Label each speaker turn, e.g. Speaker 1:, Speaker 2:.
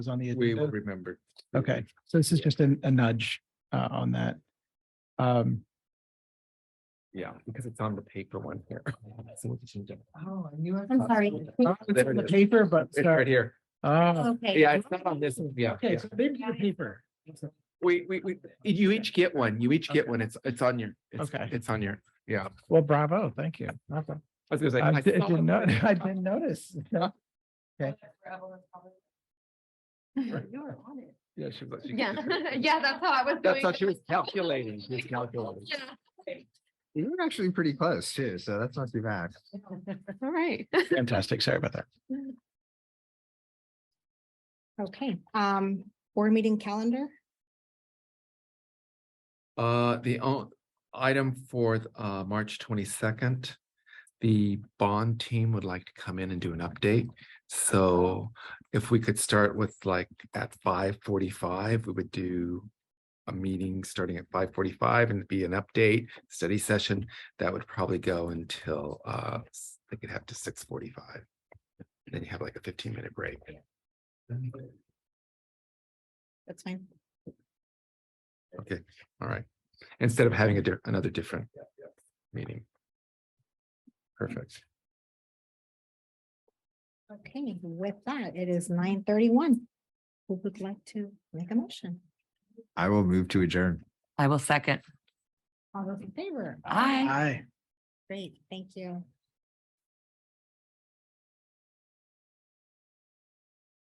Speaker 1: was on the
Speaker 2: We will
Speaker 1: agenda.
Speaker 2: remember.
Speaker 1: Okay, so this is just a a nudge uh, on that. Um,
Speaker 2: Yeah, because it's on the paper one here. So we'll just change it.
Speaker 1: oh, I knew I-
Speaker 3: I'm sorry.
Speaker 1: Oh, It's
Speaker 2: There
Speaker 1: on
Speaker 2: it
Speaker 1: the
Speaker 2: is.
Speaker 1: paper, but
Speaker 2: It's right
Speaker 1: sorry.
Speaker 2: here.
Speaker 1: Ah,
Speaker 3: Okay.
Speaker 2: Yeah, it's not on this, one. yeah.
Speaker 1: okay, so maybe the paper.
Speaker 2: We, we, we, you each get one, you each get
Speaker 1: Okay.
Speaker 2: one, it's, it's on your, it's,
Speaker 1: Okay.
Speaker 2: it's on your, yeah.
Speaker 1: Well, bravo, thank you.
Speaker 2: I was gonna say.
Speaker 1: I
Speaker 2: I
Speaker 1: di-
Speaker 2: saw
Speaker 1: didn't
Speaker 2: it.
Speaker 1: know, I didn't notice.
Speaker 3: You're on it.
Speaker 2: Yeah, she was like, she
Speaker 3: Yeah,
Speaker 2: gets it.
Speaker 3: yeah, that's how I was doing.
Speaker 2: That's how she
Speaker 3: it.
Speaker 2: was calculating, she was calculating.
Speaker 3: Yeah,
Speaker 4: You were actually pretty close too, so that's not too bad.
Speaker 3: all right.
Speaker 1: Fantastic, sorry about that.
Speaker 3: Okay, um, board meeting calendar.
Speaker 2: Uh, the o- item for, th- uh, March twenty-second, the bond team would like to come in and do an update. So if we could start with like at five forty-five, we would do a meeting starting at five forty-five and be an update study session. That would probably go until, uh, s- they could have to six forty-five. Then you have like a fifteen-minute break.
Speaker 3: That's fine.
Speaker 2: Okay, all right. Instead of having a di- another different meeting. Perfect.
Speaker 3: Okay, with that, it is nine thirty-one. Who would like to make a motion?
Speaker 4: I will move to adjourn.
Speaker 5: I will second.
Speaker 3: All those in favor?
Speaker 5: Aye.
Speaker 1: Hi.
Speaker 3: Great, thank you.